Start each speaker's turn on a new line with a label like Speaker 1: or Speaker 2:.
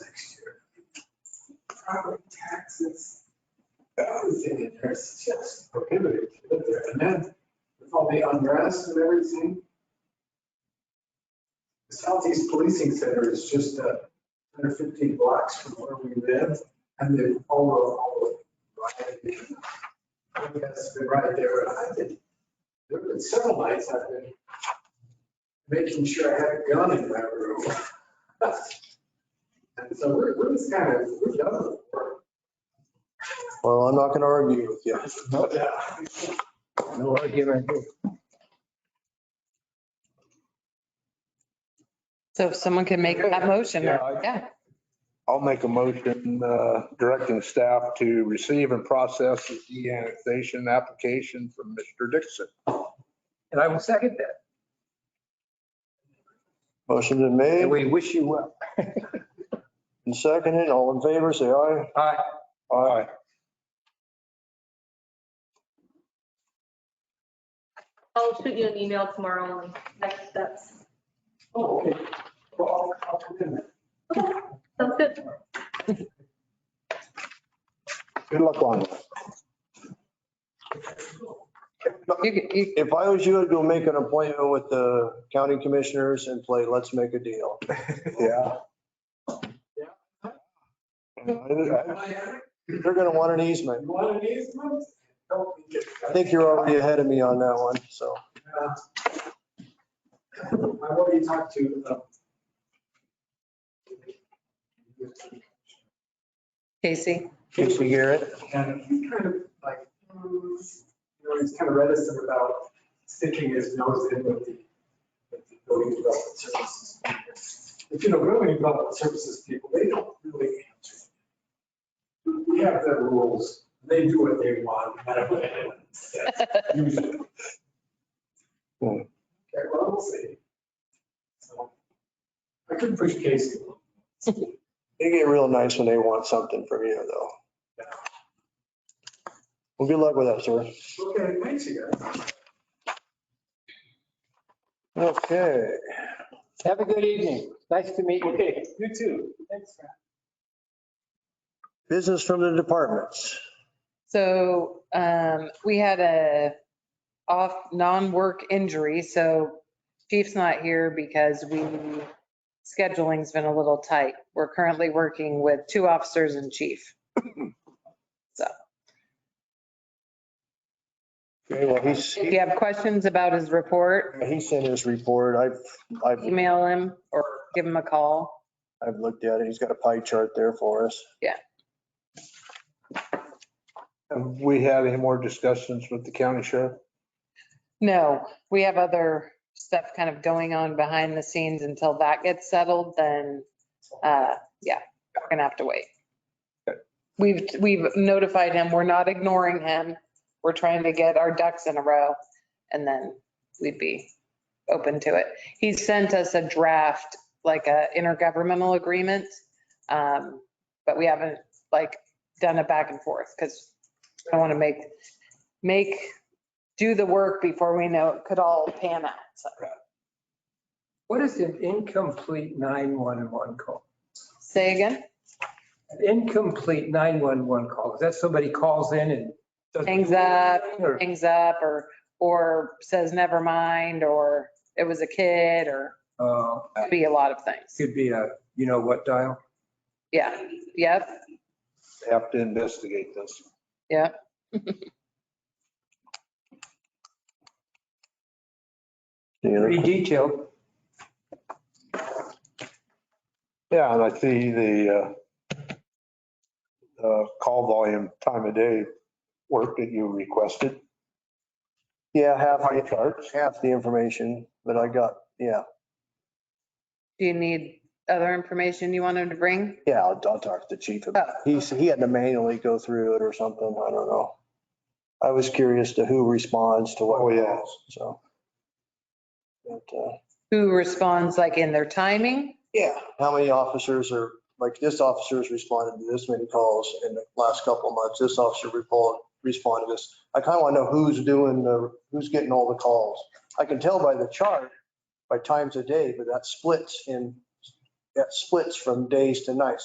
Speaker 1: property taxes.
Speaker 2: The other thing in there is just prohibited to live there. And then with all the unrest and everything, the Southeast Policing Center is just uh, 115 blocks from where we live and they follow all the right. I guess they're right there. And I've been, there have been several nights I've been making sure I had a gun in my room. And so we're, we're just kind of, we're done with work.
Speaker 3: Well, I'm not going to argue with you.
Speaker 4: No argument.
Speaker 5: So if someone can make that motion,
Speaker 3: Yeah, I-
Speaker 5: yeah,
Speaker 4: I'll make a motion uh, directing staff to receive and process the de-annexation application from Mr. Dixon.
Speaker 6: And I will second that.
Speaker 3: Motion been made
Speaker 6: And we wish you well.
Speaker 3: and seconded. All in favor, say aye.
Speaker 6: Aye.
Speaker 3: Aye.
Speaker 7: I'll shoot you an email tomorrow on next steps.
Speaker 2: Oh, okay. Well, I'll, I'll come in.
Speaker 7: Sounds good.
Speaker 4: Good luck on it.
Speaker 5: you, can- you,
Speaker 3: If I was you, I'd go make an appointment with the county commissioners and play, let's make a deal.
Speaker 4: Yeah.
Speaker 3: They're
Speaker 2: You
Speaker 3: going to want an easement.
Speaker 2: want an easement? Don't think it's-
Speaker 3: I think you're already ahead of me on that one, so.
Speaker 2: Uh, I've already talked to, uh,
Speaker 5: Casey.
Speaker 3: Casey Garrett.
Speaker 2: and he's kind of like, hmm, you know, he's kind of reticent about sticking his nose in with the, with the building development services. But you know, building development services people, they don't really answer. We have their rules, they do what they want, no matter what anyone says, usually.
Speaker 4: Hmm.
Speaker 2: Okay, well, we'll see. So, I could push Casey. a little.
Speaker 3: They get real nice when they want something from you, though. Well, good luck with that, sir.
Speaker 2: Okay, thanks, you guys.
Speaker 3: Okay.
Speaker 6: Have a good evening. Nice to meet you.
Speaker 2: Okay, you too. Thanks, Fran.
Speaker 3: Business from the departments.
Speaker 5: So um, we had a off, non-work injury, so chief's not here because we, scheduling's been a little tight. We're currently working with two officers and chief. So
Speaker 3: Okay, well, he's,
Speaker 5: if you have questions about his report,
Speaker 3: he sent his report. I've, I've
Speaker 5: email him or give him a call.
Speaker 3: I've looked at it. He's got a pie chart there for us.
Speaker 4: Have we had any more discussions with the county sheriff?
Speaker 5: No, we have other stuff kind of going on behind the scenes until that gets settled, then, uh, yeah, we're gonna have to wait. We've, we've notified him, we're not ignoring him, we're trying to get our ducks in a row, and then we'd be open to it. He sent us a draft, like a intergovernmental agreement, um, but we haven't, like, done a back and forth, because I want to make, make do the work before we know it could all pan out. So
Speaker 6: What is an incomplete 911 call?
Speaker 5: Say again,
Speaker 6: An Incomplete 911 call. Is that somebody calls in and doesn't? do
Speaker 5: Hangs up.
Speaker 6: anything, or-
Speaker 5: hangs up or, or says never mind, or it was a kid, or
Speaker 6: Uh,
Speaker 5: could be a lot of things.
Speaker 6: Could be a, you know what dial?
Speaker 5: Yeah, yep,
Speaker 4: Have to investigate this.
Speaker 5: yep.
Speaker 3: Yeah.
Speaker 6: Pretty detailed.
Speaker 4: Yeah, and I see the uh, uh, call volume, time of day work that you requested.
Speaker 3: Yeah, half,
Speaker 4: Pie
Speaker 3: the-
Speaker 4: charts.
Speaker 3: half the information, but I got, yeah,
Speaker 5: Do you need other information you wanted to bring?
Speaker 3: yeah, I'll, I'll talk to the chief about
Speaker 5: Oh.
Speaker 3: it. He's, he had to manually go through it or something. I don't know. I was curious to who responds to what.
Speaker 4: Oh, yeah.
Speaker 3: So. But, uh,
Speaker 5: Who responds like in their timing?
Speaker 3: Yeah, how many officers are, like, this officer's responded to this many calls in the last couple of months, this officer repo- responded to this. I kind of want to know who's doing the, who's getting all the calls. I can tell by the chart, by times a day, but that splits in, that splits from days to nights.